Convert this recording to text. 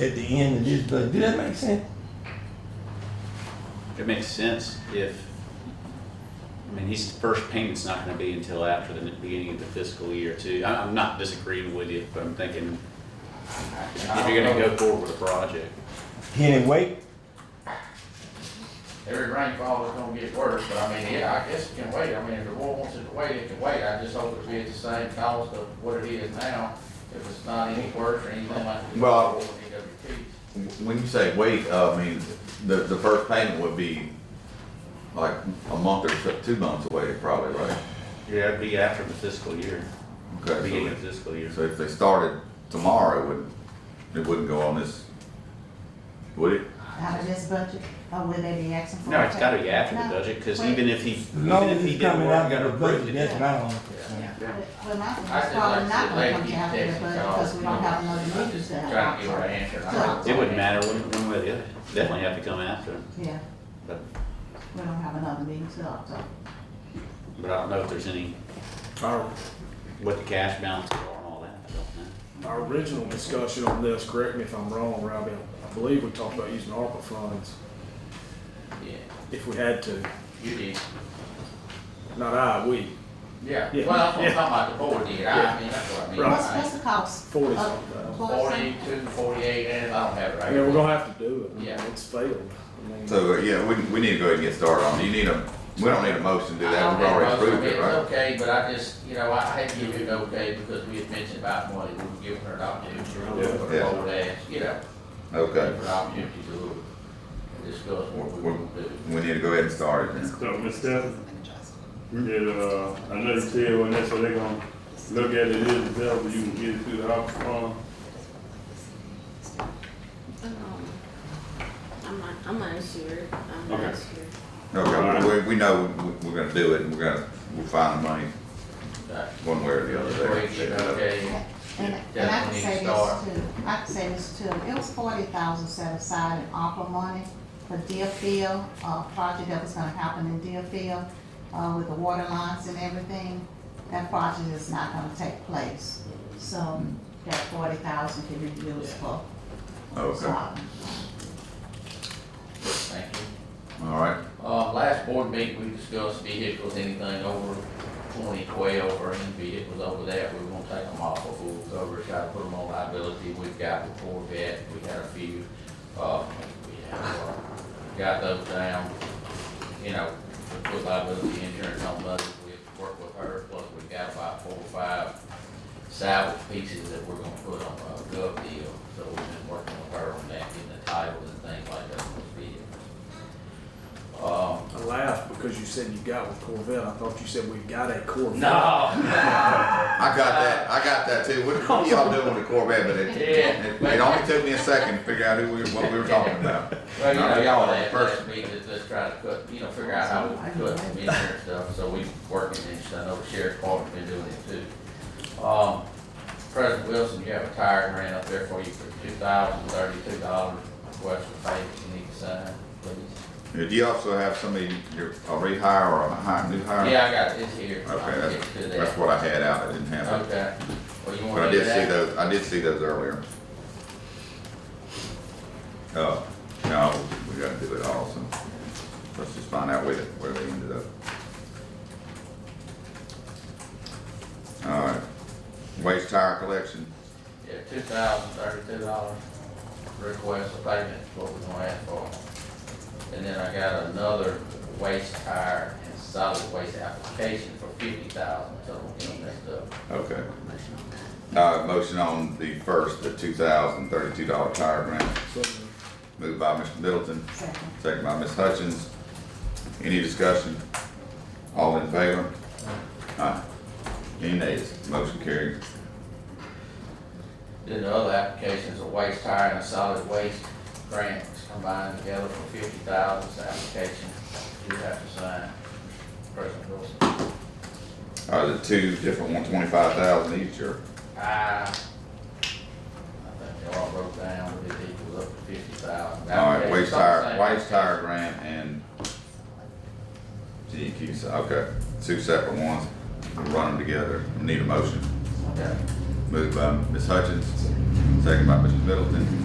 at the end of this budget. Do that make sense? It makes sense if, I mean, his first payment's not gonna be until after the beginning of the fiscal year too. I, I'm not disagreeing with you, but I'm thinking, if you're gonna go forward with a project. Can it wait? Every rainfall is gonna get worse, but I mean, yeah, I guess it can wait. I mean, if the world wants it to wait, it can wait. I just hope it'll be at the same cost of what it is now, if it's not any worse or anything like. it was Well- before with DWP. When you say wait, uh, I mean, the, the first payment would be like a month or so, two months away probably, right? Yeah, it'd be after the fiscal year, Okay, so beginning we- of fiscal year. So if they started tomorrow, it wouldn't, it wouldn't go on this, would it? out of this budget, or would they be asking for? No, a it's gotta be after the No. budget, cause Wait. even if he, As even long if as he it's did coming work, out got of the budget, approved that's it. what I want. Yeah, Yeah. Well, my thing I is just like probably to not see gonna Lady come keep out of the texting budget, calls. because we don't have another I'm meetings just that. Trying to get her answer. I don't- It wouldn't matter one, one way or the other, definitely have to come after him, Yeah, but, we don't have another meeting till October. but I don't know if there's any, Our, what the cash balances are and all that, I don't know. our original discussion on this, correct me if I'm wrong, Robbie, I believe we talked about using ARPA funds Yeah, if we had to. you did. Not I, we, Yeah, Yeah. well, that's what I'm Yeah. talking about, the board did. I Yeah. mean, that's what I mean. Right. What's, what's the cost? forty of- something thousand. for something? Forty-two, forty-eight, and I don't have it right. I mean, we're gonna have to do it. Uh, Yeah. It's failed. I mean, So, uh, yeah, we, we need to go ahead and get started on it. You need a, we don't need a motion to do that, we've already approved it, It's right? okay, but I just, you know, I hate to give you an okay because we had mentioned about money, we were giving her an opportunity to look for Yeah. the old ass, you know. Okay, Give her an opportunity to look and discuss what we want to do. we need to go ahead and start it then. So, Ms. Stephens, did, uh, I know you said when that's, so they gonna look at it as well, you can get it through the ARPA fund. Um, I'm not, I'm not sure, I'm Okay. not sure. Okay, we, we know we- we're gonna do it, and we're gonna, we'll find the money Right. one way or the Before you get an other. there. okay. And, and I can say this too, I can say this too, it was forty thousand set aside in ARPA money for Deerfield, uh, project that was gonna happen in Deerfield, uh, with the water lines and everything. That project is not gonna take place, so that forty thousand can be used for. Okay, all uh, Thank you. right, Uh, last board meeting, we discussed vehicles, anything over twenty twelve or any vehicles over that, we won't take them off of full coverage, try to put them on liability. We've got the Corvette, we had a few, uh, we have, uh, got those down, you know, we put liability insurance on those, we work with her, plus we've got about four or five salvage pieces that we're gonna put on a gov deal, so we've been working with her on that, getting the titles and things like that on those vehicles. Um, I laughed because you said you got with Corvette. I thought you said we got a Corvette. No. I got Uh, that, I got that too, what what y'all doing with the Corvette, but it, it Yeah. it only took me a second to figure out who we, what we were talking about. Well, you know, y'all Not had the first first meeting, just, just trying to cut, you know, figure out how we could cut some insurance stuff, so we working and stuff, I know the sheriff's department's been doing it too. Um, President Wilson, you have a tire grant up there for you for two thousand thirty-two dollars, request for payment, you need to sign, please. Do you also have somebody, you're a rehire or a hire, new hire? Yeah, I got it, it's here. I'll Okay, get that's, to that. that's what I had out, I didn't have it, Okay, well, you but wanna I do did that? see those, I did see those earlier. Oh, no, we gotta do it all, so, let's just find out where, they- where they ended up. All right, waste tire collection, Yeah, two thousand thirty-two dollars request of payment, is what we're gonna ask for. And then I got another waste tire and solid waste application for fifty thousand, so we'll get them messed up. okay. Motion on that. Uh, motion on the first, the two thousand thirty-two dollar tire grant, moved by Mr. Middleton, Second. second by Ms. Hutchins. Any discussion? All in favor? Aye. Any nays? Motion carried. Then the other applications are waste tire and a solid waste grants combined together for fifty thousand, it's an application you have to sign, President Wilson. Are Uh, the two different one twenty-five thousand each or? I, I think they all broke down, but it equals up to fifty thousand. All right, waste tire, waste tire grant and GEQ, so, okay, two separate ones. We'll Run them together. Need a motion. Okay. um, Moved by Ms. Hutchins, second by Mr. Middleton.